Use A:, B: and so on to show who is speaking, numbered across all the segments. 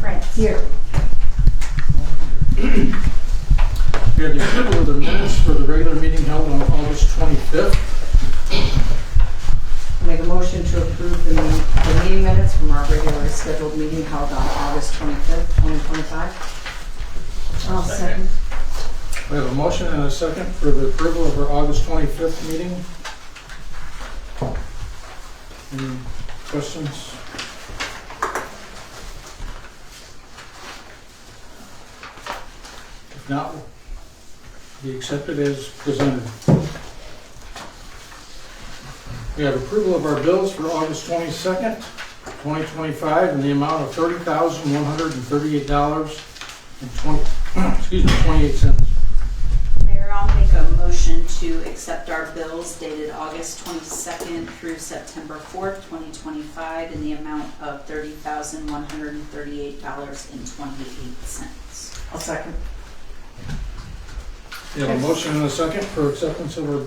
A: France.
B: Here.
C: We have the approval of the minutes for the regular meeting held on August 25th.
B: Make a motion to approve the min- the meeting minutes from our regularly scheduled meeting held on August 25th, 2025.
A: I'll second.
C: We have a motion and a second for the approval of our August 25th meeting. Any questions? If not, be accepted as presented. We have approval of our bills for August 22nd, 2025, in the amount of $30,138 and 20, excuse me, 28 cents.
D: Mayor, I'll make a motion to accept our bills dated August 22nd through September 4th, 2025, in the amount of $30,138.28.
B: I'll second.
C: We have a motion and a second for acceptance of our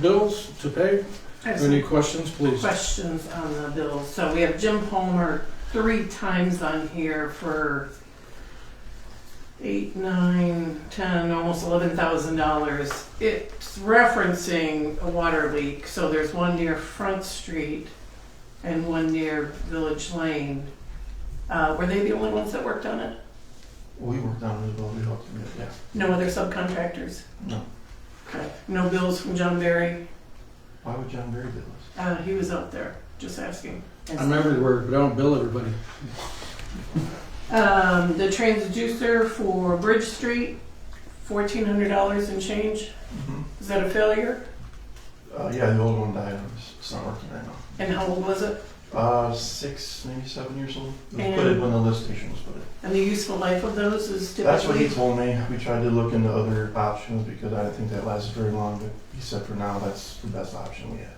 C: bills to pay.
E: I have
C: Any
E: some
C: questions, please?
E: questions on the bills. So we have Jim Palmer three times on here for eight, nine, ten, almost eleven thousand dollars. It's referencing a water leak, so there's one near Front Street and one near Village Lane. Uh, were they the only ones that worked on it?
F: We worked on it as well, we helped him, yeah.
E: No other subcontractors?
F: No.
E: Okay. No bills from John Barry?
F: Why would John Barry do this?
E: Uh, he was out there, just asking.
C: I'm everywhere, but I don't bill everybody.
E: Um, the transducer for Bridge Street, fourteen hundred dollars and change. Is that a failure?
F: Mm-hmm. Uh, yeah, the old one died, it's, it's not working right now.
E: And how old was it?
F: Uh, six, maybe seven years old. It was put
E: And-
F: in when the lift station was put in.
E: And the useful life of those is
F: That's what he
E: typically?
F: told me. We tried to look into other options because I didn't think that lasted very long, but he said for now, that's the best option we have.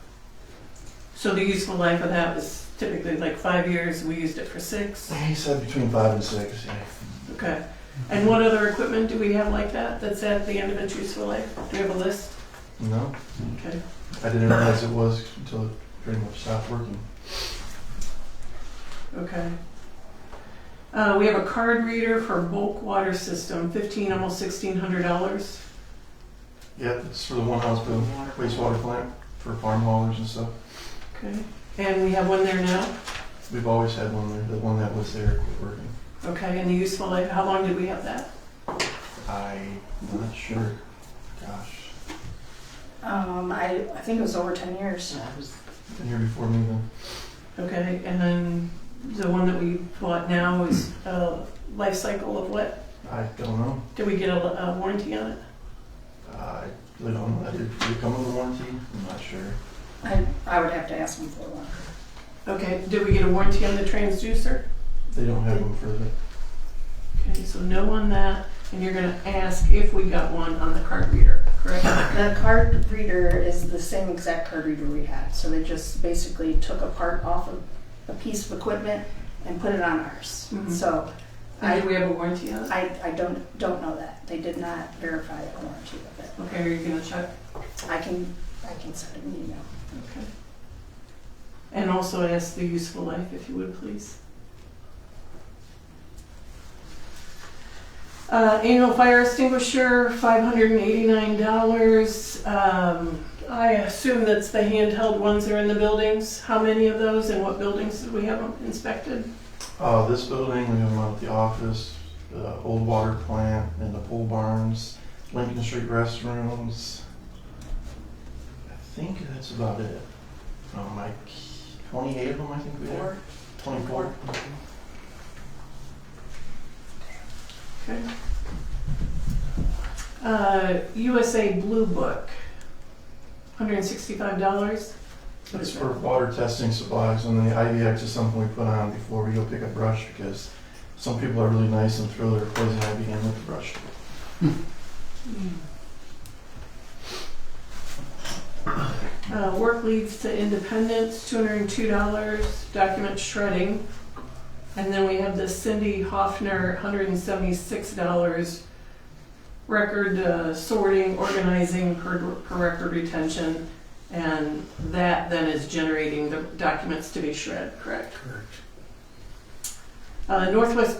E: So the useful life of that was typically like five years, we used it for six,
F: He said between five and six, yeah.
E: okay. And what other equipment do we have like that, that's at the end of its useful life? Do you have a list?
F: No,
E: Okay.
F: I didn't realize it was until it pretty much stopped working.
E: Okay. Uh, we have a card reader for bulk water system, fifteen, almost sixteen hundred dollars.
F: Yep, it's for the one house bill, wastewater plant for farm haulers and stuff.
E: Okay. And we have one there now?
F: We've always had one there, the one that was there quit working.
E: Okay, and the useful life, how long did we have that?
F: I'm not sure. Gosh,
A: Um, I, I think it was over ten years.
F: been here before me then.
E: Okay, and then the one that we bought now is a life cycle of what?
F: I don't know.
E: Did we get a, a warranty on it?
F: I really don't know. Did did it come with a warranty? I'm not sure.
A: I, I would have to ask him for one.
E: Okay, did we get a warranty on the transducer?
F: They don't have them for the,
E: Okay, so no on that, and you're gonna ask if we got one on the card reader, correct?
A: The card reader is the same exact card reader we had, so they just basically took a part off of a piece of equipment and put it on ours.
E: Mhm.
A: So
E: And do we have a warranty on it?
A: I, I don't, don't know that. They did not verify the warranty of it.
E: Okay, are you gonna check?
A: I can, I can send an email.
E: Okay. And also ask the useful life, if you would, please. Uh, annual fire extinguisher, five hundred and eighty-nine dollars. Um, I assume that's the handheld ones that are in the buildings. How many of those and what buildings did we have them inspected?
F: uh, this building, we have them at the office, the old water plant, and the pool barns, Lincoln Street restrooms. I think that's about it. Um, like twenty-eight of them, I think we have.
A: Or
F: Twenty-four.
E: Okay. Uh, USA Blue Book, hundred and sixty-five dollars.
F: It's for water testing supplies, and the IVX is something we put on before we go pick up brush, because some people are really nice and throw their poison ivy in with the brush.
E: Uh, work leads to independence, two hundred and two dollars, document shredding. And then we have the Cindy Hoffner, hundred and seventy-six dollars, record uh, sorting, organizing, per, per record retention. And that then is generating the documents to be shred, correct?
C: Correct.
E: Uh, Northwest